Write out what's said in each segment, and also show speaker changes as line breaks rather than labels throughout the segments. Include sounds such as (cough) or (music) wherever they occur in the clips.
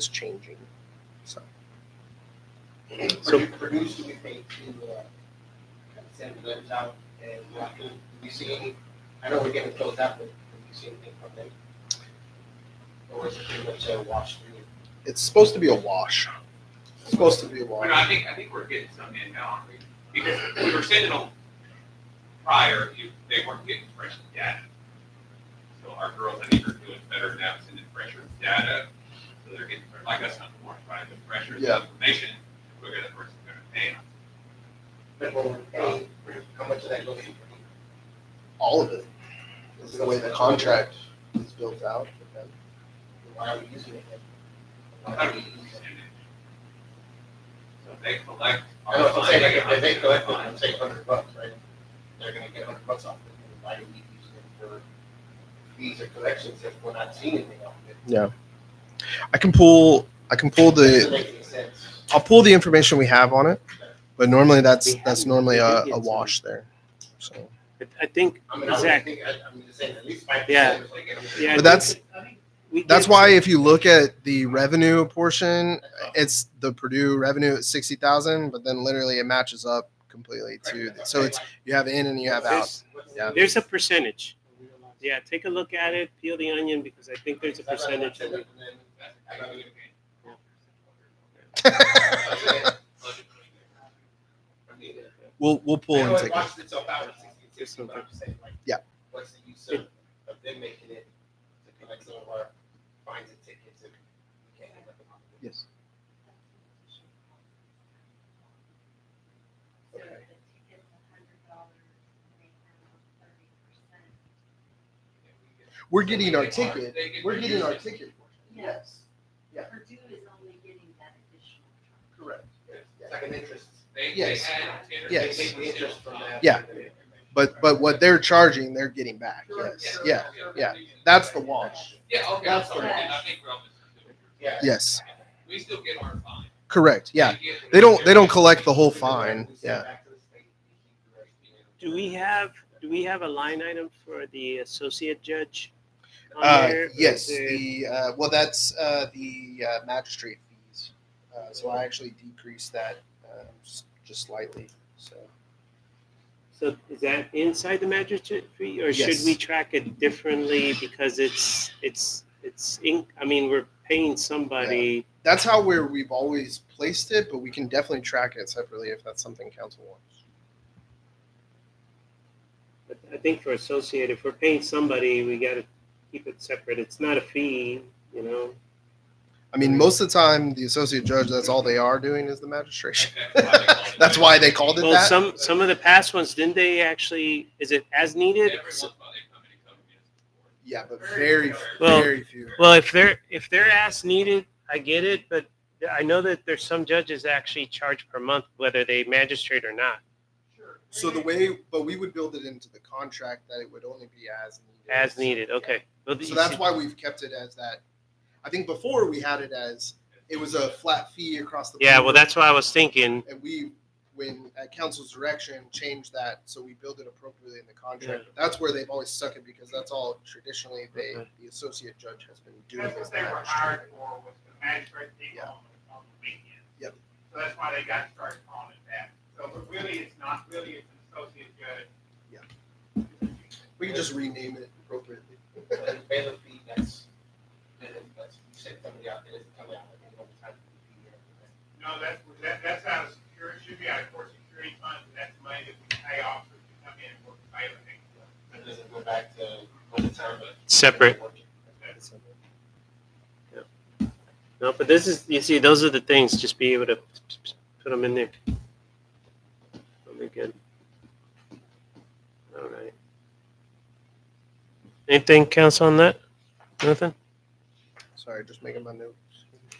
is changing. So
Produ- Produce do we think to, uh, send letters out and what do we see any, I know we're getting closed out, but do we see anything from them? Or is it pretty much a wash through?
it's supposed to be a wash. It's supposed to be a
Well, no, I
wash.
think, I think we're getting some in now, aren't we? because we were sending them prior, you, they weren't getting fresh data. So our girls, I think, are doing better now, sending fresher data, so they're getting, they're like us, not more, right, the fresher
Yeah.
information, the quicker the person's gonna pay.
But when we pay, how much of that goes to?
All of it. This is the way the contract is built out.
Why are we using it? then? Why
How
are
do
we
we
using
use
it?
it? So if they collect.
I know, I'm saying, like, if they
our
collect, it,
fine,
I'm saying hundred bucks, right? They're gonna get hundred bucks off it, and why do we use it for fees or collections if we're not seeing anything off of it?
I can pull. I can pull the.
Doesn't make any sense.
I'll pull the information we have on it. But normally that's that's normally a, a wash there. So,
I think,
I mean, I would
Exactly.
think, I- I'm just saying, at least five
Yeah.
percent.
yeah.
but that's
we
that's
did-
why if you look at the revenue portion, it's the Purdue revenue at sixty thousand, but then literally it matches up completely to. So it's you have in and you have out.
There's,
Yeah. (laughs)
there's a percentage. Yeah, take a look at it, peel the onion, because I think there's a percentage. that we-
that's- I gotta get paid.
We'll we'll pull and take. a-
Watched itself out at sixty-two, but I'm just saying, like.
Yeah.
What's the use of, of them making it, to collect some of our fines and tickets and. we can't have nothing on it?
Yes.
So if the ticket's a hundred dollars, they have thirty percent.
We're getting our ticket.
They get-
We're getting our ticket. Yes. Yeah.
Purdue is only getting that additional charge.
Correct.
It's like an interest.
They, they
Yes.
add ten or
they
Yes.
take
fifteen
the interest
percent.
from that.
Yeah. But but what they're charging, they're getting back. Yes.
Sure,
Yeah.
sure.
yeah. That's the wash.
Yeah, okay, I'm
That's
sorry,
the-
I think we're all misunderstanding.
Yeah.
Yes.
We still get our fine.
Correct. Yeah.
We get-
They don't they don't collect the whole fine.
We send
Yeah.
back to the state, we keep the rest, you know.
Do we have, do we have a line item for the associate judge? on
Uh,
there? Or is
yes.
it-
The uh, well that's uh, the uh, magistrate fees. Uh, so I actually decreased that um, s- just slightly. So
So is that inside the magistrate fee, or should
Yes.
we track it differently because it's, it's, it's, in- I mean, we're paying somebody.
that's how where we've always placed it, but we can definitely track it separately if that's something council wants.
But I think for associate, if we're paying somebody, we gotta keep it separate. It's not a fee, you know?
I mean, most of the time, the associate judge that's all they are doing is the magistration.
That's
(laughs) that's why they called it
Well,
that.
some some of the past ones didn't they actually? Is it as needed?
Everyone's
So-
while they come in and come in.
Yeah, but very,
Well-
very few.
Well, if they're if they're as needed, I get it, but I know that there's some judges that actually charge per month, whether they magistrate or not,
Sure.
So the way, but we would build it into the contract that it would only be as needed.
as needed. Okay, well,
So
you
that's
see-
why we've kept it as that. I think before we had it as it was a flat fee across the.
Yeah, well,
board,
that's what I was thinking.
And we, when at council's direction, changed that so we build it appropriately in the contract. But That's where they've always stuck it because that's all traditionally they,
Okay.
the associate judge has been doing.
That's
is
what
the
they were
magistrate.
hired for, was the magistrate thing
Yeah.
on, the- on the weekend.
Yep.
So that's why they got started calling it that. So, but really, it's not, really, it's an associate judge.
Yeah. We can just rename it appropriately. (laughs)
So the bailiff fee, that's, that's, you said somebody out there doesn't come out, like, they don't have to be here.
No, that's, that, that's out of security, should be out of court security funds, and that's money that we pay officers to come in and work the bailiff.
It doesn't go back to overtime, but.
Separate.
That's-
No, but this is you see, those are the things. Just be able to put them in there. That'll be good. All right. Anything, council, on that? Nothing.
Sorry, just making my notes.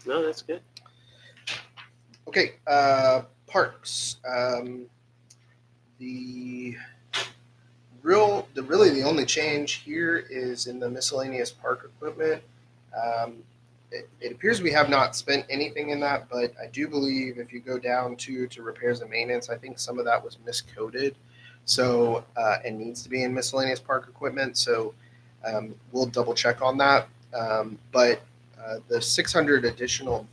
No, that's good.
Okay, uh, parks. Um, the real, the really the only change here is in the miscellaneous park equipment. Um, it, it appears we have not spent anything in that, but I do believe if you go down to to repairs and maintenance, I think some of that was miscoded, so uh, and needs to be in miscellaneous park equipment. So um, we'll double check on that. Um, but Uh, the 600 additional